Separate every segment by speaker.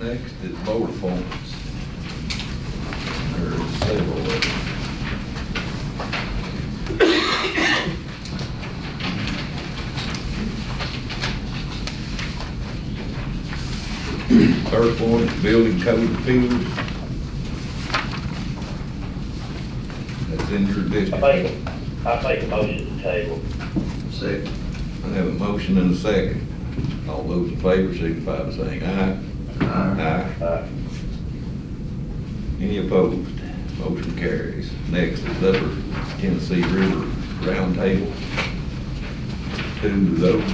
Speaker 1: Next is board appointments. There are several of them. First one, is building code appeals. That's in your
Speaker 2: I
Speaker 1: district.
Speaker 2: make, I make a motion to table.
Speaker 1: Second. I have a motion and a second. All those in favor signify by saying aye. Aye.
Speaker 2: Uh,
Speaker 1: Any opposed? Motion carries. Next is Upper Tennessee River Roundtable. Two of those.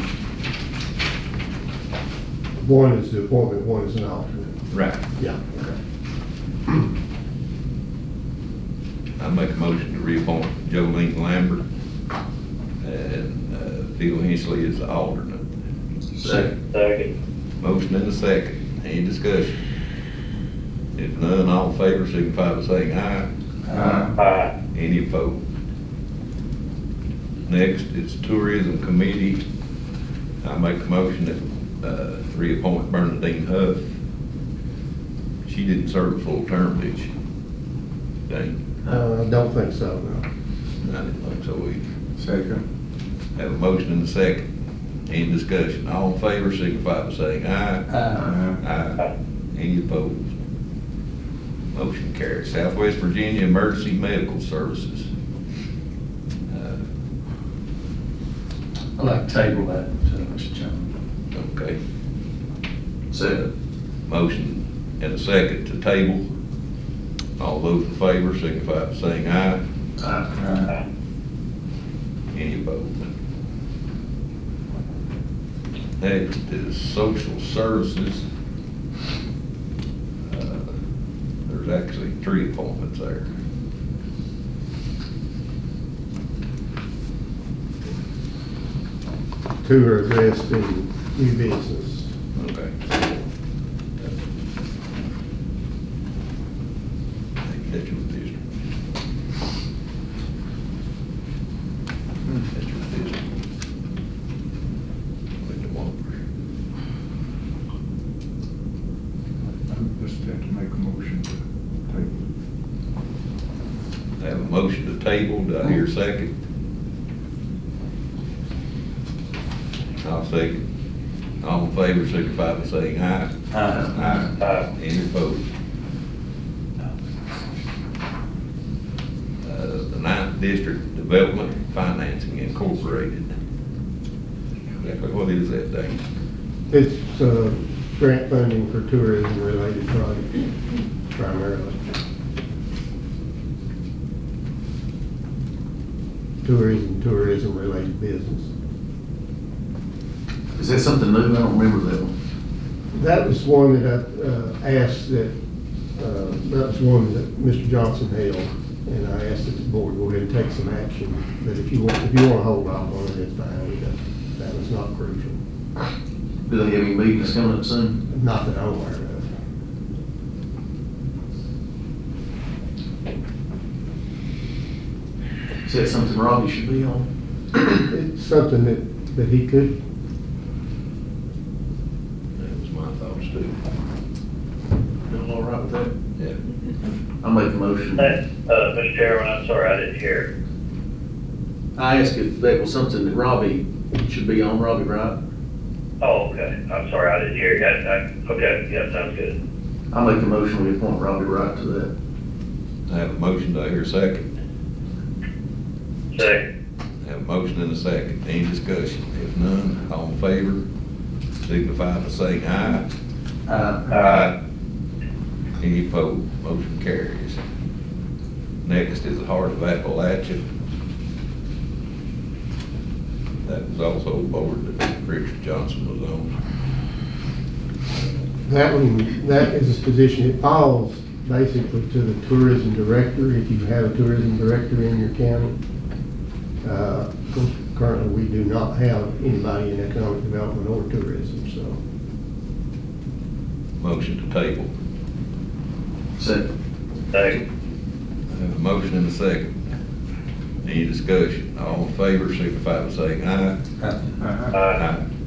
Speaker 3: One is the appointment, one is an alternate.
Speaker 1: Right.
Speaker 3: Yeah. Okay.
Speaker 1: I make a motion to reappoint Jolene Lambert and uh, Phil Hensley is the alternate.
Speaker 3: Second.
Speaker 2: second,
Speaker 1: Motion and a second. Any discussion? If none, all in favor signify by saying aye.
Speaker 2: aye,
Speaker 1: Any opposed? Next, it's Tourism Committee. I make a motion to uh, reappoint Bernadine Huff. She didn't serve a full term, did she? Dang,
Speaker 3: Uh, I don't think so, no.
Speaker 1: I didn't think so either.
Speaker 4: Second.
Speaker 1: Have a motion and a second. Any discussion? All in favor, signify by saying aye.
Speaker 2: uh,
Speaker 1: Aye. Any opposed? Motion carries. Southwest Virginia Emergency Medical Services. Uh,
Speaker 4: I'd like to table that, uh, Mr. Chairman.
Speaker 1: Okay. Motion and a second to table. All those in favor signify by saying aye.
Speaker 4: Aye.
Speaker 2: aye,
Speaker 1: Any opposed? Next is social services. Uh, There's actually three appointments there.
Speaker 3: Two are addressed in new E business.
Speaker 1: Okay. That's your district. That's your district. Wait a moment.
Speaker 4: I Just have to make a motion to
Speaker 1: I have a motion to table, do I hear a second? I'll second. All in favor, signify by saying aye. Aye.
Speaker 2: aye,
Speaker 1: Any opposed? Uh, The Ninth District Development Financing Incorporated. Exactly what is that thing?
Speaker 3: It's, uh, grant funding for tourism-related projects primarily. Tourism, tourism-related business.
Speaker 5: Is that something new? I don't remember that one.
Speaker 3: That was one that I uh, asked that, uh, that was one that Mr. Johnson held, and I asked that the board go ahead and take some action, but if you want, if you want to hold off on it, it's fine, that, that was not crucial,
Speaker 5: Do they have any meetings coming up soon?
Speaker 3: not that I'm aware of.
Speaker 5: Is that something Robbie should be on?
Speaker 3: It's something that, that he could,
Speaker 1: That was my thoughts too.
Speaker 5: Y'all all right with that?
Speaker 1: Yeah.
Speaker 5: I'll make a motion.
Speaker 2: That, uh, Mr. Chairman, I'm sorry, I didn't hear.
Speaker 5: I asked if that was something that Robbie should be on, Robbie Wright.
Speaker 2: Oh, okay, I'm sorry, I didn't hear, I, I, okay, yeah, sounds good,
Speaker 5: I'll make a motion we appoint Robbie Wright to that.
Speaker 1: I have a motion, do I hear a second?
Speaker 2: second,
Speaker 1: I have a motion and a second. Any discussion? If none, all in favor, signify by saying aye.
Speaker 5: Uh,
Speaker 2: aye,
Speaker 1: Any opposed? Motion carries. Next is the Heart of Appalachia. That was also a board that Richard Johnson was on.
Speaker 3: that one, that is a position, it falls basically to the tourism director, if you have a tourism director in your county. Uh, Currently, we do not have anybody in economic development or tourism, so.
Speaker 1: Motion to table.
Speaker 5: Second.
Speaker 2: second,
Speaker 1: I have a motion and a second. Any discussion? All in favor, signify by saying aye.
Speaker 4: table.
Speaker 2: aye,
Speaker 1: Aye.